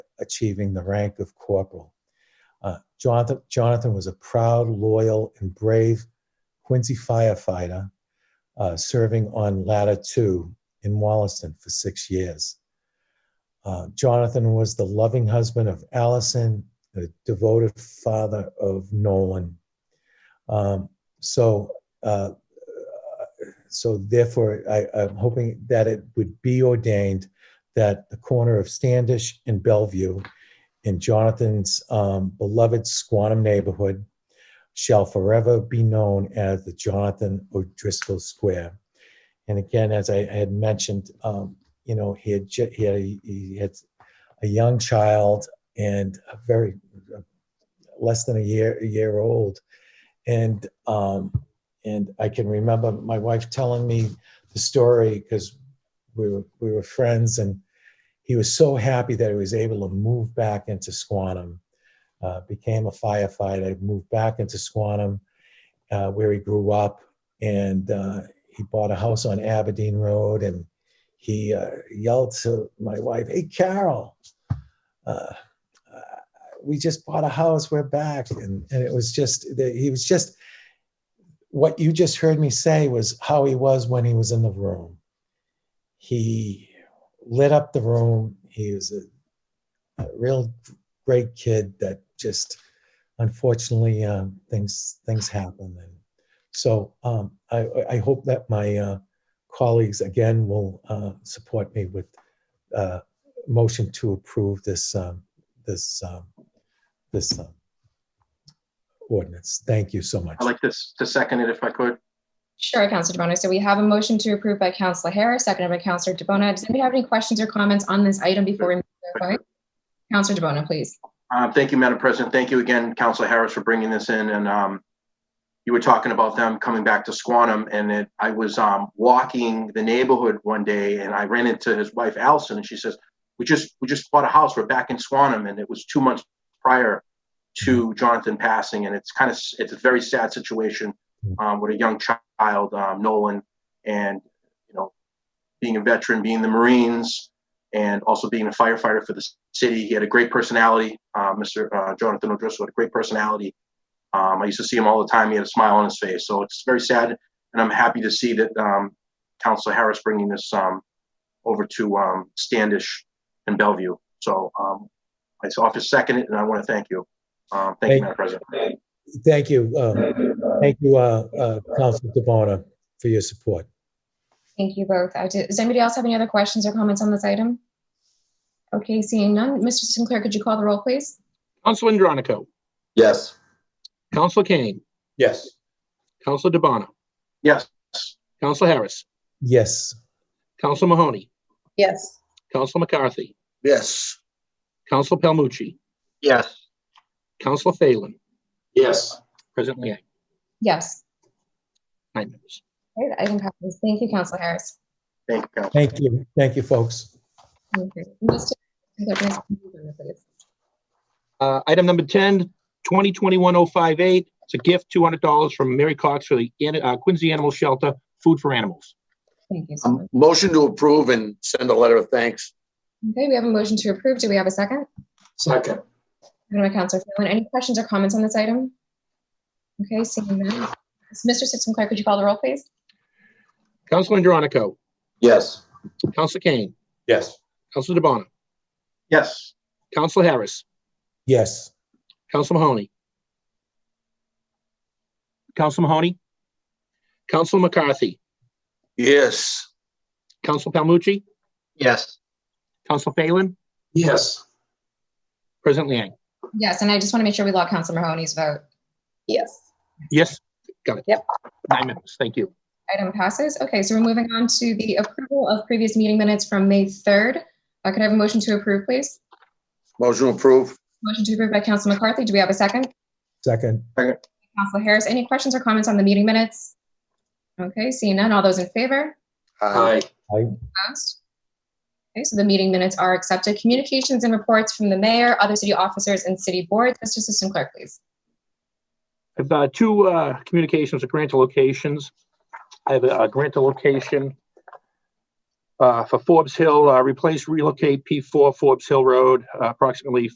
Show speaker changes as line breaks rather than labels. achieving the rank of corporal. Uh, Jonathan, Jonathan was a proud, loyal, and brave Quincy firefighter uh, serving on Ladder 2 in Wollaston for six years. Uh, Jonathan was the loving husband of Allison, the devoted father of Nolan. Um, so, uh, so therefore, I, I'm hoping that it would be ordained that the corner of Standish and Bellevue in Jonathan's um, beloved Squantum neighborhood shall forever be known as the Jonathan O'Driscoll Square. And again, as I had mentioned, um, you know, he had, ju- he had, he had a young child and a very less than a year a year old, and um, and I can remember my wife telling me the story because we were we were friends, and he was so happy that he was able to move back into Squantum, uh, became a firefighter, moved back into Squantum, uh, where he grew up, and uh, he bought a house on Aberdeen Road, and he uh, yelled to my wife, "Hey, Carol, uh, uh, we just bought a house. We're back." And, and it was just that he was just what you just heard me say was how he was when he was in the room. He lit up the room. He was a, a real great kid that just unfortunately um, things things happen. And so um, I, I hope that my uh, colleagues again will uh, support me with uh, motion to approve this, um, this, um, this um, ordinance. Thank you so much.
I'd like to, s- to second it if I could.
Sure, Counselor DeBona. So we have a motion to approve by Counselor Harris, seconded by Counselor DeBona. Does anybody have any questions or comments on this item before we move to a vote? Counselor DeBona, please.
Um, Thank you, Madam President. Thank you again, Counselor Harris, for bringing this in. And um, you were talking about them coming back to Squantum, and it, I was um, walking the neighborhood one day, and I ran into his wife, Allison, and she says, "We just we just bought a house. We're back in Squantum," and it was two months prior to Jonathan passing, and it's kind of it's a very sad situation um, with a young child, um, Nolan, and you know, being a veteran, being in the Marines, and also being a firefighter for the city. He had a great personality. Uh, Mr. Uh, Jonathan O'Driscoll had a great personality. Um, I used to see him all the time. He had a smile on his face. So it's very sad, and I'm happy to see that um, Councilor Harris bringing this um, over to um, Standish and Bellevue. So um, I office second it, and I want to thank you. Um, thank you,
Thank-
Madam President.
Thank you. um, Thank you, uh, uh, Counselor DeBona, for your support.
Thank you both. Uh, do- Does anybody else have any other questions or comments on this item? Okay, seeing none. Mr. Sinclair, could you call the roll, please?
Counselor Andronico,
Yes.
Counselor Kane,
Yes.
Counselor DeBona,
Yes.
Counselor Harris,
Yes,
Counselor Mahoney,
yes,
Counselor McCarthy,
Yes.
Counselor Palmucci,
Yes.
Counselor Phelan,
Yes.
President Liang,
Yes.
nine members.
Okay, the item passes. Thank you, Counselor Harris.
Thank you, Council.
thank you. Thank you, folks.
Thank you. Mr. Sinclair, can I have your agenda, please?
Uh, Item number 10, 2021-058, it's a gift, $200 from Mary Cox for the An- uh, Quincy Animal Shelter, food for animals.
Thank you so much.
Um, Motion to approve and send a letter of thanks.
Okay, we have a motion to approve. Do we have a second?
Second.
Seconded by Counselor Phelan. Any questions or comments on this item? Okay, seeing none. Mr. Sinclair, could you call the roll, please?
Counselor Andronico,
Yes.
Counselor Kane,
Yes.
Counselor DeBona,
Yes.
Counselor Harris,
Yes.
Counselor Mahoney. Counselor Mahoney, Counselor McCarthy,
Yes.
Counselor Palmucci,
Yes.
Counselor Phelan,
Yes.
President Liang.
Yes, and I just want to make sure we log Counselor Mahoney's vote.
yes.
Yes, got it.
Yep.
Nine members, thank you.
Item passes. Okay, so we're moving on to the approval of previous meeting minutes from May 3rd. Uh, Could I have a motion to approve, please?
Motion to approve.
Motion to approve by Counselor McCarthy. Do we have a second?
Second,
Counselor Harris, any questions or comments on the meeting minutes? Okay, seeing none. All those in favor?
Aye.
Passed. Okay, so the meeting minutes are accepted. Communications and reports from the mayor, other city officers, and city boards. Mr. Assistant Clerk, please.
I have uh, two uh, communications, or grant to locations. I have a a grant to location uh, for Forbes Hill, uh, replace relocate P4 Forbes Hill Road, uh, approximately